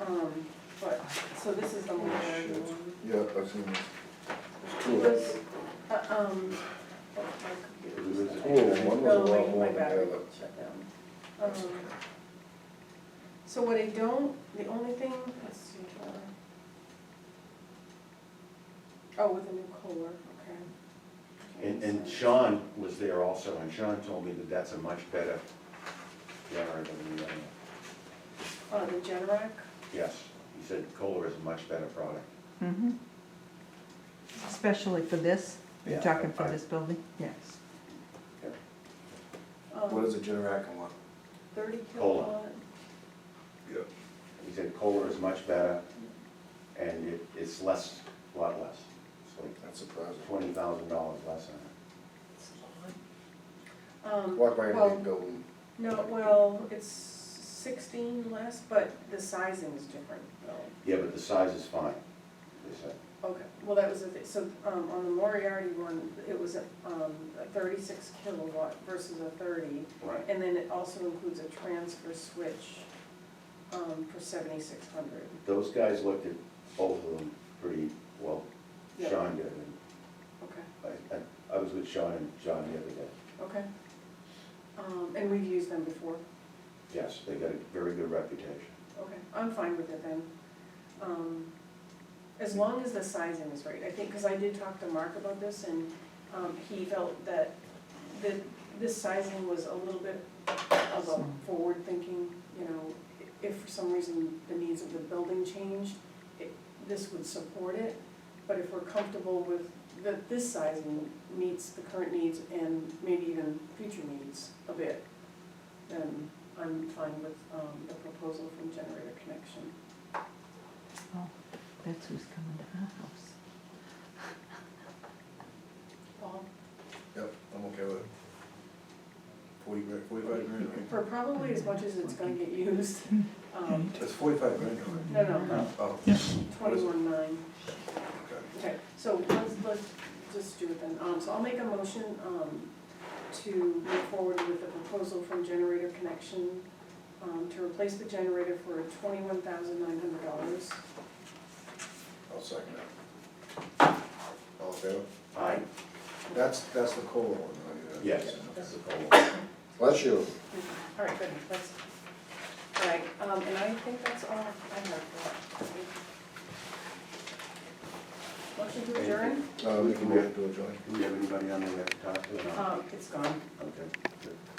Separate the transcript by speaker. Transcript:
Speaker 1: Um, but, so this is the
Speaker 2: Oh,
Speaker 1: Mulberry
Speaker 2: shit.
Speaker 1: one.
Speaker 2: Yeah, I've seen this. There's two
Speaker 1: It
Speaker 2: of them.
Speaker 1: was, uh, um, oh, my computer
Speaker 2: There's
Speaker 1: just
Speaker 2: two of them, one was a
Speaker 1: No,
Speaker 2: lot
Speaker 1: my-
Speaker 2: more
Speaker 1: my
Speaker 2: than the
Speaker 1: battery
Speaker 2: other.
Speaker 1: shut down. Um, So what I don't, the only thing, let's see, uh, oh, with a new COLA, okay.
Speaker 3: And, and
Speaker 1: So-
Speaker 3: Sean was there also, and Sean told me that that's a much better generator than the other. one.
Speaker 1: Oh, the Generac,
Speaker 3: Yes, he said Kohler is a much better product.
Speaker 4: Mhm. Especially for this,
Speaker 3: Yeah,
Speaker 4: you're talking for
Speaker 3: I-
Speaker 4: this building, yes.
Speaker 2: What is
Speaker 1: um,
Speaker 2: a Generac and what?
Speaker 1: thirty
Speaker 3: Kohler.
Speaker 1: kilowatt,
Speaker 3: He said Kohler is much better, and it, it's less, a lot less. It's like
Speaker 2: That's surprising.
Speaker 3: twenty thousand dollars less on it.
Speaker 1: um,
Speaker 2: Walk by
Speaker 1: well,
Speaker 2: any big building,
Speaker 1: No, well, it's sixteen less, but the sizing is different, though.
Speaker 3: Yeah, but the size is fine, they said.
Speaker 1: Okay, well, that was the thing, so, um, on the Moriarty one, it was, um, a thirty-six kilowatt versus a thirty,
Speaker 3: Right.
Speaker 1: and then it also includes a transfer switch, um, for seventy-six hundred.
Speaker 3: Those guys looked at both of them pretty, well,
Speaker 1: Yeah.
Speaker 3: Sean did, and
Speaker 1: Okay,
Speaker 3: I, I, I was with Sean and John the other day.
Speaker 1: okay. Um, and we've used them before,
Speaker 3: Yes, they got a very good reputation.
Speaker 1: okay, I'm fine with it then. Um, as long as the sizing is right, I think, because I did talk to Mark about this, and, um, he felt that, that this sizing was a little bit of
Speaker 4: Small.
Speaker 1: a forward thinking, you know, i- if for some reason the needs of the building changed, it, this would support it, but if we're comfortable with, that this sizing meets the current needs and maybe even future needs a bit, then I'm fine with, um, the proposal from Generator Connection.
Speaker 4: Oh, that's who's coming to our house.
Speaker 1: Paul?
Speaker 2: yep, I'm okay with it. Forty grand, forty-five grand, right?
Speaker 1: For probably as much as it's gonna get used, um,
Speaker 2: It's forty-five grand, right?
Speaker 1: no, no,
Speaker 2: Oh,
Speaker 1: twenty-one nine.
Speaker 2: okay.
Speaker 1: Okay, so let's, let's just do it then. Um, so I'll make a motion, um, to move forward with a proposal from Generator Connection, um, to replace the generator for twenty-one thousand nine hundred dollars.
Speaker 2: I'll second that. All in favor?
Speaker 3: Aye.
Speaker 2: That's, that's the COLA one, right? Yeah.
Speaker 3: Yes, that's a Kohler.
Speaker 2: Bless you.
Speaker 1: All right, good, that's, all right, um, and I think that's all I have for that. Motion to adjourn,
Speaker 2: Uh, we can move it to a joint.
Speaker 1: Uh,
Speaker 3: Do we have anybody on there we have to talk to or not?
Speaker 1: um, it's gone.
Speaker 3: Okay, good.